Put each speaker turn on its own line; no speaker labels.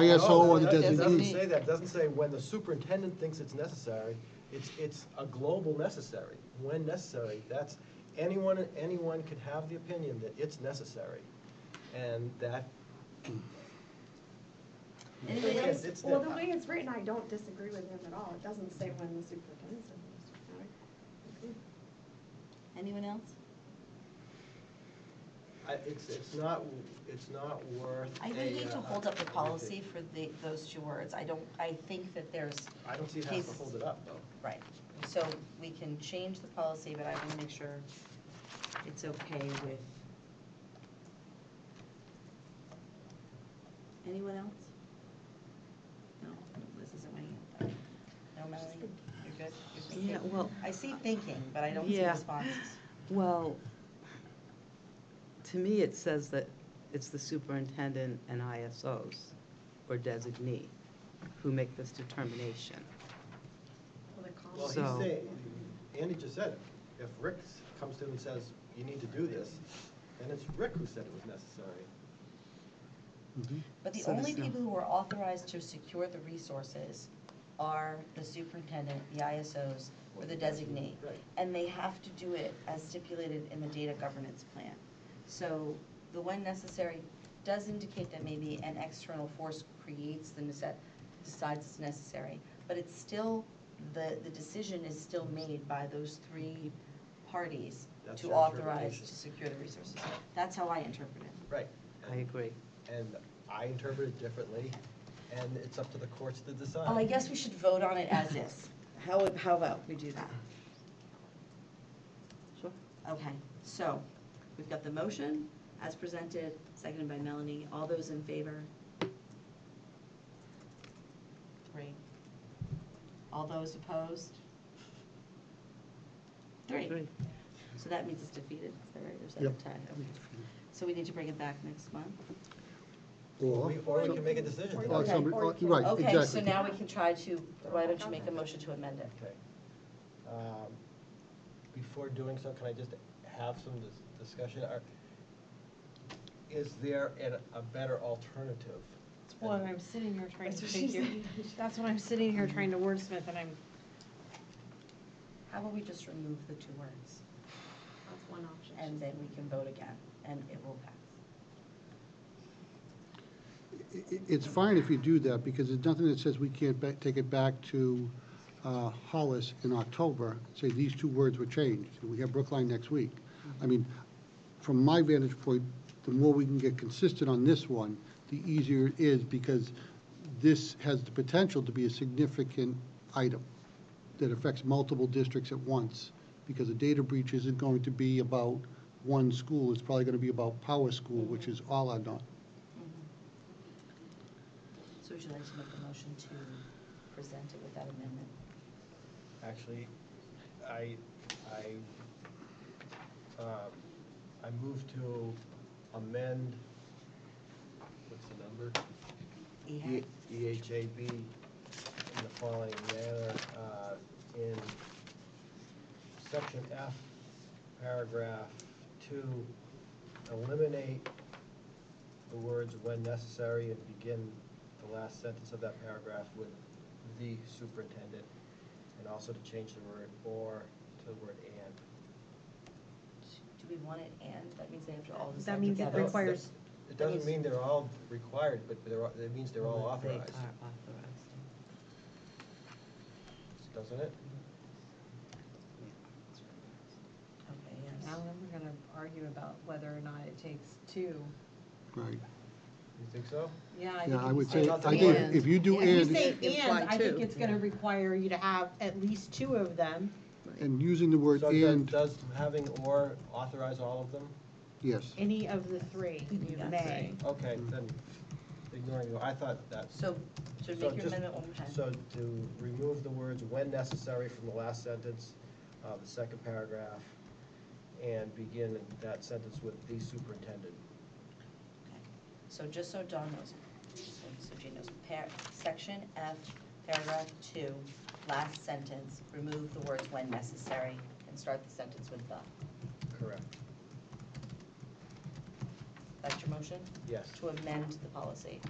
ISO or the
No, that- that Doesn't
designee.
say that, It doesn't say when the superintendent thinks it's necessary, it's, it's a global necessary, when necessary, that's, anyone, anyone could have the opinion that it's necessary, and that.
Anybody
Again,
else?
it's-
Well, the way it's written, I don't disagree with him at all. It doesn't say when the superintendent's in
Anyone else?
I, it's, it's not, it's not worth.
I would
a,
hate to
uh,
hold up the
a-
policy for the, those two words. I don't, I think that there's,
I don't see how to
cases.
hold it up, though.
right. So we can change the policy, but I want to make sure it's okay with. Anyone else? No, Liz isn't waiting. No, Melanie, you're good? You're just
Yeah,
thinking.
well-
I see thinking, but I don't see
Yeah.
responses.
Well, to me, it says that it's the superintendent and ISOs or designee who make this determination.
Well,
the
he's
So-
saying, Andy just said it, if Rick s- comes to him and says, you need to do this, then it's Rick who said it was necessary.
But the
So
only
there's no-
people who are authorized to secure the resources are the superintendent, the ISOs, or the designee.
Right.
And they have to do it as stipulated in the data governance plan. So the when necessary does indicate that maybe an external force creates the, nece- decides it's necessary. But it's still, the, the decision is still made by those three parties
That's
to
your
authorize
interpretation.
to secure the resources. That's how I interpret it.
Right.
I agree.
And I interpret it differently, and it's up to the courts to decide.
Well, Oh, Um, I guess we should vote on it as is. How, how about we do that?
Sure.
Okay, so we've got the motion as presented, seconded by Melanie. All those in favor? Three. All those opposed? Three.
Three.
So that means it's defeated, is that right? There's
Yep.
that tie. Okay. So we need to bring it back next month?
Or,
We- Or we can make a decision.
Or you
tonight.
or
Okay.
somebody, or-
Or-
right,
Okay, so
exactly.
now we can try to, why don't you make a motion to amend it?
Okay. Um, Before doing so, can I just have some dis- discussion? Are- Is there an- a better alternative?
That's what I'm sitting here trying
That's
to
what she
figure, that's what I'm sitting here trying to wordsmith, and I'm,
How about we just remove the two words?
That's one option.
and then we can vote again, and it will pass.
I- i- It's fine if you do that, because there's nothing that says we can't ba- take it back to uh, Hollis in October, say these two words were changed, and we have Brookline next week. I mean, from my vantage point, the more we can get consistent on this one, the easier it is, because this has the potential to be a significant item that affects multiple districts at once, because a data breach isn't going to be about one school, it's probably going to be about Power School, which is all I know.
So would you like to make a motion to present it with that amendment?
Actually, I, I, um, I move to amend, what's the number?
Yeah.
E- EHAB in the following manner, uh, in section F, paragraph two, eliminate the words when necessary and begin the last sentence of that paragraph with the superintendent, and also to change the word or to the word and.
Do we want it and, that means they have to all
That
decide
means it
together?
requires-
It doesn't mean they're all required, but they're, all- it means they're all authorized,
They are authorized.
doesn't it?
Okay, yes.
now we're gonna argue about whether or not it takes two.
Right.
You think so?
Yeah, I think.
Yeah,
if
I
you
would
say
say,
Not
I
the
think
and.
if you do
If you
and,
say
Imply
and, I think
two.
it's gonna require you to have at least two of them.
and using the word
So does-
and,
Does having or authorize all of them?
yes.
Any of the three, you
Yeah.
may.
Okay, then ignoring, the- I thought that.
So, so
So
make your
just-
amendment one more time.
So to remove the words when necessary from the last sentence of the second paragraph and begin that sentence with the superintendent.
Okay. So just so Don knows, so so Jane knows, par, section F, paragraph two, last sentence, remove the words when necessary, and start the sentence with the.
Correct.
That's your motion?
Yes.
To amend the policy.